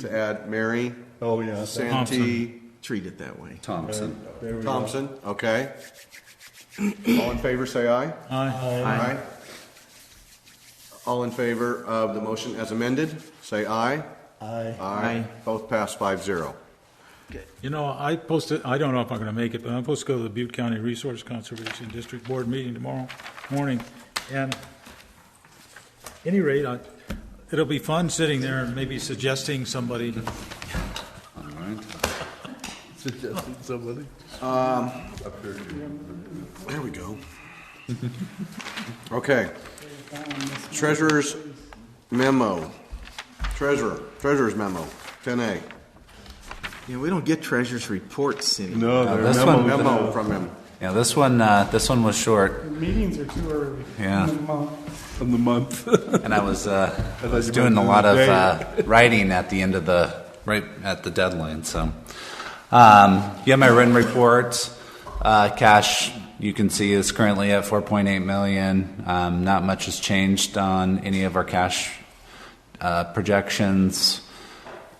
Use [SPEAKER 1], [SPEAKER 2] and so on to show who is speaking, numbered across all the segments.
[SPEAKER 1] to add Mary
[SPEAKER 2] Oh, yeah.
[SPEAKER 1] Santee, treat it that way.
[SPEAKER 3] Thompson.
[SPEAKER 2] There we go.
[SPEAKER 1] Thompson, okay. All in favor, say aye.
[SPEAKER 4] Aye.
[SPEAKER 1] Aye. All in favor of the motion as amended, say aye.
[SPEAKER 2] Aye.
[SPEAKER 1] Aye. Both pass five zero.
[SPEAKER 4] You know, I posted, I don't know if I'm gonna make it, but I'm supposed to go to the Butte County Resource Conservation District Board meeting tomorrow morning. And any rate, I, it'll be fun sitting there and maybe suggesting somebody.
[SPEAKER 3] All right.
[SPEAKER 1] There we go. Okay. Treasurer's memo. Treasurer, treasurer's memo, ten A.
[SPEAKER 5] Yeah, we don't get treasurer's reports
[SPEAKER 2] No,
[SPEAKER 5] anymore.
[SPEAKER 3] Now,
[SPEAKER 2] there
[SPEAKER 3] Uh, this
[SPEAKER 2] memo-
[SPEAKER 3] one-
[SPEAKER 1] Memo from him.
[SPEAKER 3] Yeah, this one, uh, this one was short,
[SPEAKER 6] Meetings are too early.
[SPEAKER 3] Yeah.
[SPEAKER 2] From the month.
[SPEAKER 3] and I was, uh, I
[SPEAKER 2] thought
[SPEAKER 3] was
[SPEAKER 2] you
[SPEAKER 3] doing
[SPEAKER 2] meant
[SPEAKER 3] a lot
[SPEAKER 2] the
[SPEAKER 3] of
[SPEAKER 2] day.
[SPEAKER 3] uh, writing at the end of the right at the deadline. So, um, you have my written reports. Uh, cash you can see is currently at 4.8 million. Um, not much has changed on any of our cash uh, projections.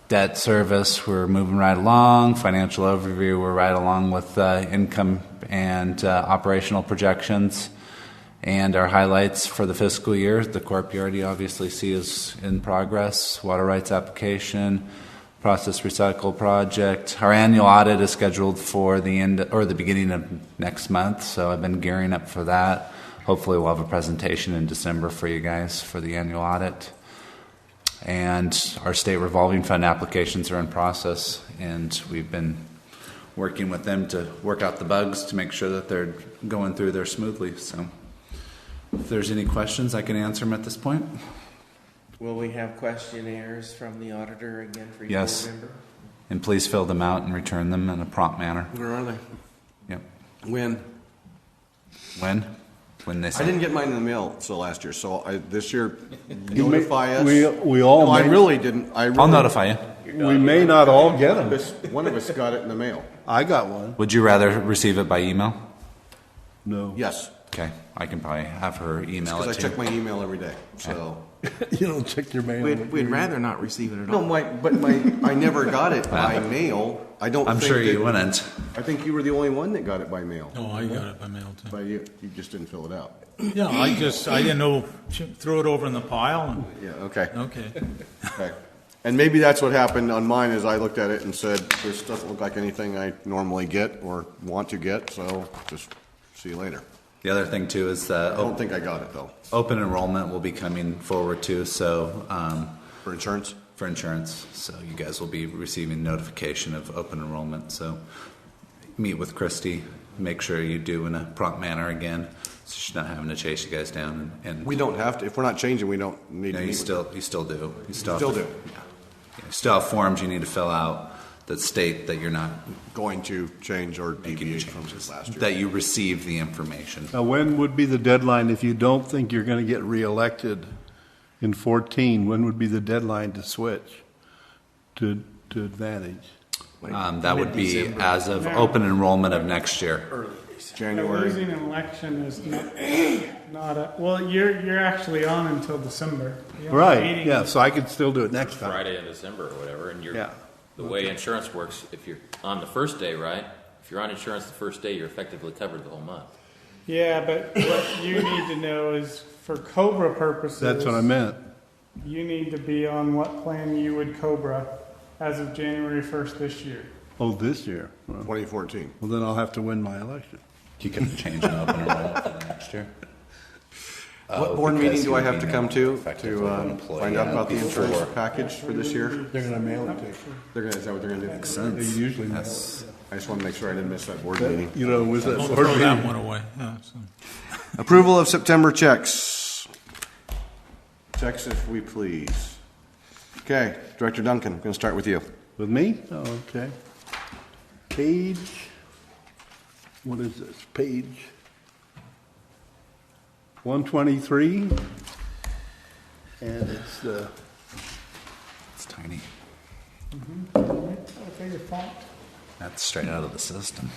[SPEAKER 3] Debt service, we're moving right along. Financial overview, we're right along with uh, income and uh, operational projections. And our highlights for the fiscal year, the corp you already obviously see is in progress, water rights application, process recycle project. Our annual audit is scheduled for the end or the beginning of next month, so I've been gearing up for that. Hopefully, we'll have a presentation in December for you guys for the annual audit. And our state revolving fund applications are in process, and we've been working with them to work out the bugs to make sure that they're going through there smoothly. So, if there's any questions, I can answer them at this point.
[SPEAKER 5] Will we have questionnaires from the auditor again for each board
[SPEAKER 3] Yes.
[SPEAKER 5] member?
[SPEAKER 3] And please fill them out and return them in a prompt manner.
[SPEAKER 1] Where are they?
[SPEAKER 3] Yep.
[SPEAKER 1] When?
[SPEAKER 3] When? When they
[SPEAKER 1] I
[SPEAKER 3] send.
[SPEAKER 1] didn't get mine in the mail, so last year, so I, this year,
[SPEAKER 2] You may-
[SPEAKER 1] notify us.
[SPEAKER 2] We, we all,
[SPEAKER 1] No, I
[SPEAKER 2] may-
[SPEAKER 1] really didn't, I really.
[SPEAKER 3] I'll notify you.
[SPEAKER 2] we may not all get them.
[SPEAKER 1] This- One of us got it in the mail.
[SPEAKER 2] I got one.
[SPEAKER 3] Would you rather receive it by email?
[SPEAKER 2] No.
[SPEAKER 1] Yes,
[SPEAKER 3] Okay, I can probably have her email
[SPEAKER 1] because I
[SPEAKER 3] it to
[SPEAKER 1] check
[SPEAKER 3] you.
[SPEAKER 1] my email every day, so.
[SPEAKER 2] You don't check your mail.
[SPEAKER 5] We'd, we'd rather not receive it at
[SPEAKER 1] No,
[SPEAKER 5] all.
[SPEAKER 1] my, but my, I never got it by mail. I don't
[SPEAKER 3] I'm
[SPEAKER 1] think
[SPEAKER 3] sure you
[SPEAKER 1] that-
[SPEAKER 3] wouldn't.
[SPEAKER 1] I think you were the only one that got it by mail,
[SPEAKER 4] No, Oh, I got it by mail too.
[SPEAKER 1] but you, you just didn't fill it out.
[SPEAKER 4] Yeah, I just, I didn't know, throw it over in the pile and,
[SPEAKER 1] Yeah, okay,
[SPEAKER 4] okay.
[SPEAKER 1] okay. And maybe that's what happened on mine, is I looked at it and said, this doesn't look like anything I normally get or want to get, so just see you later.
[SPEAKER 3] The other thing too is
[SPEAKER 1] I
[SPEAKER 3] that op-
[SPEAKER 1] don't think I got it, though,
[SPEAKER 3] open enrollment will be coming forward too. So um,
[SPEAKER 1] for insurance.
[SPEAKER 3] for insurance, so you guys will be receiving notification of open enrollment. So meet with Christy. Make sure you do in a prompt manner again, so she's not having to chase you guys down. And, and
[SPEAKER 1] We don't have to, if we're not changing, we don't need
[SPEAKER 3] No,
[SPEAKER 1] to meet
[SPEAKER 3] you
[SPEAKER 1] with
[SPEAKER 3] still, you still do. You still,
[SPEAKER 1] Still
[SPEAKER 3] have to-
[SPEAKER 1] do.
[SPEAKER 3] yeah. You still have forms you need to fill out that state that you're not
[SPEAKER 1] going to change or
[SPEAKER 3] making
[SPEAKER 1] deviate from
[SPEAKER 3] changes,
[SPEAKER 1] last year.
[SPEAKER 3] that you receive the information.
[SPEAKER 2] Now, when would be the deadline if you don't think you're going to get reelected in 14? When would be the deadline to switch to, to advantage?
[SPEAKER 3] Um, that would be as of open enrollment of next year.
[SPEAKER 1] January.
[SPEAKER 6] Losing an election is not, not a, well, you're, you're actually on until December. You have a
[SPEAKER 2] Right,
[SPEAKER 6] meeting.
[SPEAKER 2] yeah, so I could still do it next time.
[SPEAKER 7] Friday in December or whatever, and you're,
[SPEAKER 2] Yeah.
[SPEAKER 7] the way insurance works, if you're on the first day, right? If you're on insurance the first day, you're effectively covered the whole month.
[SPEAKER 6] Yeah, but what you need to know is for Cobra purposes.
[SPEAKER 2] That's what I meant.
[SPEAKER 6] You need to be on what plan you would Cobra as of January first this year.
[SPEAKER 2] Oh, this year? Well,
[SPEAKER 1] 2014.
[SPEAKER 2] well, then I'll have to win my election.
[SPEAKER 3] You can change an open enrollment for next year.
[SPEAKER 1] What
[SPEAKER 3] Oh,
[SPEAKER 1] board
[SPEAKER 3] because
[SPEAKER 1] meeting do
[SPEAKER 3] you
[SPEAKER 1] I
[SPEAKER 3] would
[SPEAKER 1] have
[SPEAKER 3] be
[SPEAKER 1] to come to
[SPEAKER 3] effectively
[SPEAKER 1] to
[SPEAKER 3] an
[SPEAKER 1] uh,
[SPEAKER 3] employee
[SPEAKER 1] find out about the
[SPEAKER 3] before.
[SPEAKER 1] insurance package for this year?
[SPEAKER 2] They're going to mail it to you.
[SPEAKER 1] They're gonna, is that what they're gonna do?
[SPEAKER 2] They usually mail
[SPEAKER 3] That's-
[SPEAKER 1] I just wanna make sure I didn't miss that board meeting.
[SPEAKER 2] You know, was that
[SPEAKER 4] Don't
[SPEAKER 2] board
[SPEAKER 4] throw that
[SPEAKER 2] meeting?
[SPEAKER 4] one away. Yeah, so.
[SPEAKER 1] Approval of September checks. Checks if we please. Okay, Director Duncan, I'm gonna start with you.
[SPEAKER 2] With me? Oh, okay. Page, what is this, page? 123? And it's the,
[SPEAKER 3] It's tiny.
[SPEAKER 6] I figure font.
[SPEAKER 3] That's straight out of the system.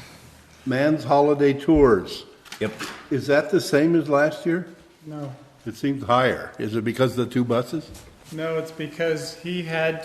[SPEAKER 2] Man's Holiday Tours.
[SPEAKER 3] Yep.
[SPEAKER 2] Is that the same as last year?
[SPEAKER 6] No,
[SPEAKER 2] It seems higher. Is it because of the two buses?
[SPEAKER 6] no, it's because he had